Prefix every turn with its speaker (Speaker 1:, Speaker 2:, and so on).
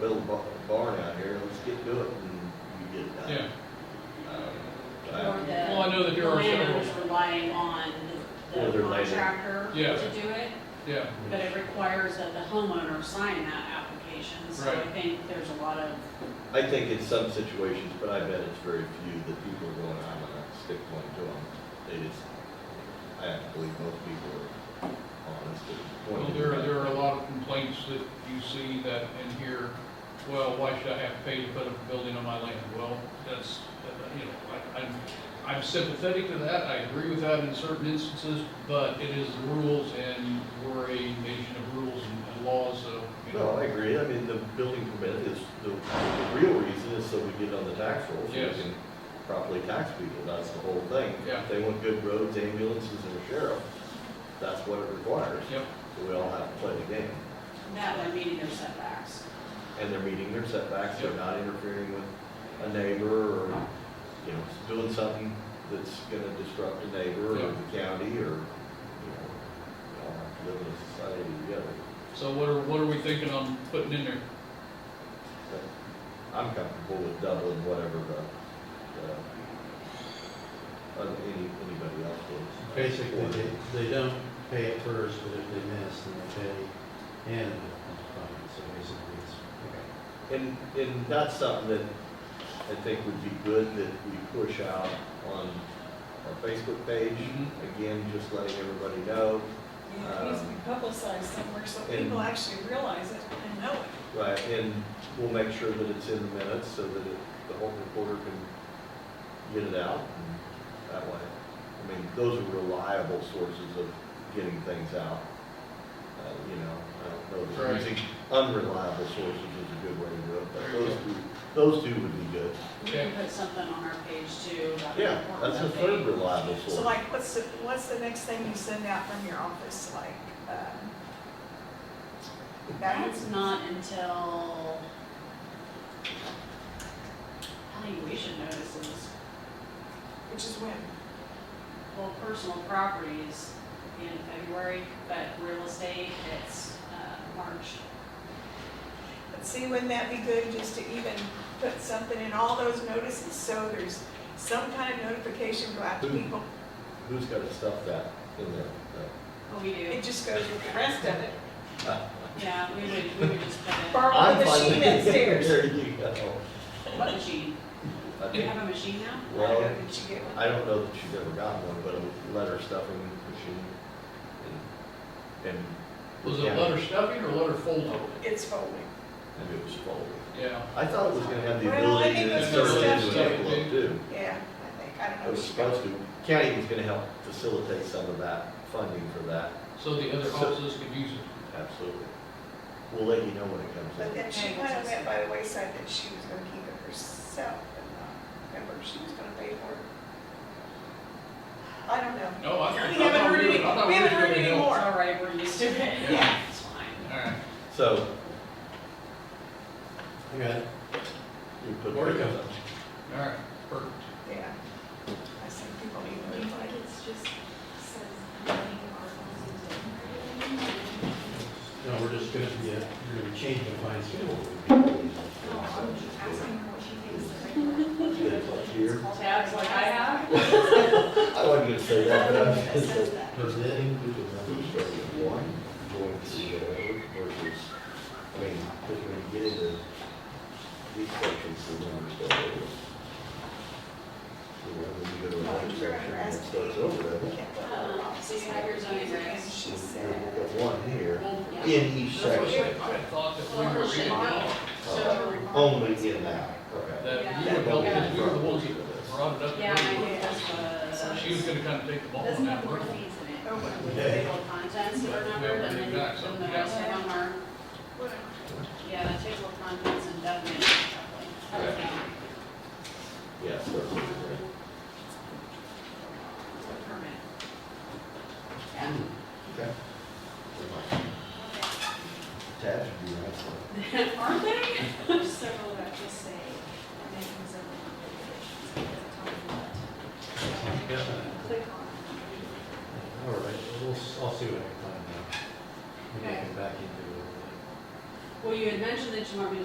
Speaker 1: build a bar- barn out here, let's get to it and you get it done.
Speaker 2: Yeah,
Speaker 1: Um,
Speaker 3: Or
Speaker 1: I-
Speaker 3: the
Speaker 2: Well, I know that there are
Speaker 3: landowner was
Speaker 2: several-
Speaker 3: relying on the-
Speaker 1: Or
Speaker 3: the
Speaker 1: their landlord.
Speaker 3: contractor
Speaker 2: Yeah.
Speaker 3: to do it,
Speaker 2: yeah,
Speaker 3: but it requires that the homeowner sign that application. So I
Speaker 2: Right.
Speaker 3: think there's a lot of,
Speaker 1: I think in some situations, but I bet it's very few, that people are going, I'm gonna stick one to them. They just, I have to believe most people are honest and
Speaker 2: well,
Speaker 1: pointed.
Speaker 2: there are, there are a lot of complaints that you see that in here, well, why should I have to pay to put a building on my land? Well, that's, uh, you know, I, I'm, I'm sympathetic to that, I agree with that in certain instances, but it is the rules and we're a nation of rules and- and laws, so, you
Speaker 1: No, I
Speaker 2: know.
Speaker 1: agree, I mean, the building permit is, the the real reason is so we get on the tax roll, so
Speaker 2: Yes.
Speaker 1: we can properly tax people, that's the whole thing.
Speaker 2: Yeah.
Speaker 1: If They want good roads, ambulances, and a sheriff, that's what it requires,
Speaker 2: Yep,
Speaker 1: so we all have to play the game.
Speaker 3: that way meeting their setbacks.
Speaker 1: And they're meeting their setbacks, they're
Speaker 2: Yep.
Speaker 1: not interfering with a neighbor, or, you know, doing something that's gonna disrupt a neighbor, or
Speaker 2: Yep.
Speaker 1: the county, or, you know, we all have to live in a society together.
Speaker 2: so what are, what are we thinking on putting in there?
Speaker 1: But I'm comfortable with doubling whatever the, the, uh, any, anybody else is.
Speaker 4: Basically, they, they don't pay it first, but if they miss, then they pay and it's fine, so basically it's, okay.
Speaker 1: And, and that's something that I think would be good that we push out on our Facebook page.
Speaker 2: Mhm.
Speaker 1: Again, just letting everybody know,
Speaker 5: Yeah, it needs to be publicized somewhere so people actually realize it and know it.
Speaker 1: right, and we'll make sure that it's in the minutes so that it- the whole reporter can get it out.
Speaker 2: Mm-hmm.
Speaker 1: and That way, I mean, those are reliable sources of getting things out. Uh, You know, I don't know, that
Speaker 2: Right.
Speaker 1: using unreliable sources is a good way to do it, but
Speaker 2: There you
Speaker 1: those
Speaker 2: go.
Speaker 1: two, those two would be good.
Speaker 3: We can put something on our page too. about the
Speaker 1: Yeah,
Speaker 3: importance
Speaker 1: that's a
Speaker 3: of
Speaker 1: third
Speaker 3: it.
Speaker 1: reliable
Speaker 5: So
Speaker 1: source.
Speaker 5: like, what's the, what's the next thing you send out from your office, like, um,
Speaker 3: That's
Speaker 5: that's,
Speaker 3: not until valuation notices.
Speaker 5: which is when?
Speaker 3: Well, personal properties in February, but real estate, it's uh, March.
Speaker 5: But see, wouldn't that be good just to even put something in all those notices, so there's some kind of notification go out to
Speaker 1: Who?
Speaker 5: people?
Speaker 1: Who's got to stuff that in there? Uh,
Speaker 3: Well, we do,
Speaker 5: It just goes with the rest of it.
Speaker 3: yeah, we would, we would just put
Speaker 5: Borrow the
Speaker 1: I'm finally-
Speaker 5: machine upstairs.
Speaker 1: There you go.
Speaker 3: it, what machine?
Speaker 1: I
Speaker 3: Do you
Speaker 1: think-
Speaker 3: have a machine now?
Speaker 1: Well,
Speaker 5: Did you get one?
Speaker 1: I don't know that she's ever gotten one, but a letter stuffing machine. And, and
Speaker 2: Was it letter stuffing or letter folding?
Speaker 5: It's folding.
Speaker 1: and it was folded.
Speaker 2: Yeah,
Speaker 1: I thought it was gonna have the
Speaker 5: Well, I
Speaker 1: ability
Speaker 5: think
Speaker 1: to
Speaker 5: that's
Speaker 1: turn
Speaker 5: what
Speaker 1: it into
Speaker 2: stuff-
Speaker 1: an envelope too.
Speaker 5: Yeah, I think, I don't know.
Speaker 1: It was supposed to. County was gonna help facilitate some of that funding for that,
Speaker 2: so the other offices could use it.
Speaker 1: absolutely. We'll let you know when it comes
Speaker 5: But
Speaker 1: in.
Speaker 5: then she kind of went by the wayside that she was gonna keep it herself and not, remember, she was gonna pay for it. I don't know.
Speaker 2: No, I. I
Speaker 5: We
Speaker 2: thought
Speaker 5: haven't heard
Speaker 2: were-
Speaker 5: any,
Speaker 2: I thought
Speaker 5: we
Speaker 2: were
Speaker 5: haven't heard
Speaker 2: gonna
Speaker 5: any
Speaker 2: help.
Speaker 3: It's
Speaker 5: more.
Speaker 3: all right, we're used to it.
Speaker 2: Yeah.
Speaker 3: It's fine.
Speaker 2: All right.
Speaker 1: So,
Speaker 4: I got it.
Speaker 1: you put.
Speaker 4: Where'd it go?
Speaker 1: pictures up.
Speaker 2: All right, perfect.
Speaker 5: Yeah. I see people
Speaker 6: Do
Speaker 5: even
Speaker 6: you
Speaker 5: need like
Speaker 6: think
Speaker 5: it.
Speaker 6: it's just says planning articles and different?
Speaker 4: No, we're just gonna, yeah, we're gonna change the fine schedule.
Speaker 6: No, I'm just asking what she thinks the
Speaker 1: It's
Speaker 6: regular.
Speaker 1: up here.
Speaker 3: Tabs like I
Speaker 1: I
Speaker 3: have?
Speaker 1: wasn't gonna say that, but I was
Speaker 6: That
Speaker 1: gonna say.
Speaker 6: says that.
Speaker 4: Does that include the
Speaker 1: Who's starting at one, going to the other versus, I mean, because when you get into these sections, the numbers go over. You know, when you go to another section, and it starts over
Speaker 5: We
Speaker 1: that.
Speaker 5: can't put her
Speaker 3: Um,
Speaker 5: off.
Speaker 3: so you have your zoning
Speaker 5: And
Speaker 3: regs.
Speaker 5: she
Speaker 1: You've
Speaker 5: said,
Speaker 1: got one here
Speaker 3: Yeah.
Speaker 1: in each
Speaker 2: That's what I
Speaker 1: section,
Speaker 2: said. I had thought that we were reading it all,
Speaker 3: So,
Speaker 1: only in that, okay.
Speaker 2: that you were helping, us. you were the ones that brought it up.
Speaker 3: yeah, I think that's what.
Speaker 2: She was gonna kind of take the ball
Speaker 3: Doesn't
Speaker 2: on
Speaker 3: have
Speaker 2: that
Speaker 3: more
Speaker 2: one.
Speaker 3: fees in it.
Speaker 5: oh, well,
Speaker 4: Okay.
Speaker 3: Table contents that are numbered, and then then the rest of them are,
Speaker 5: what-
Speaker 3: yeah, the table contents and document. Permit.
Speaker 1: Yeah, it starts over there.
Speaker 3: Yeah.
Speaker 1: Okay. Tabs would be nice.
Speaker 3: Aren't they?
Speaker 6: There's several that just say, and then there's other regulations, it doesn't tell you what. So,
Speaker 4: Yeah.
Speaker 6: Click on.
Speaker 4: All right, we'll, s- I'll see what I can find out. Maybe I can back into it a little bit.
Speaker 3: Well, you had mentioned that you want me to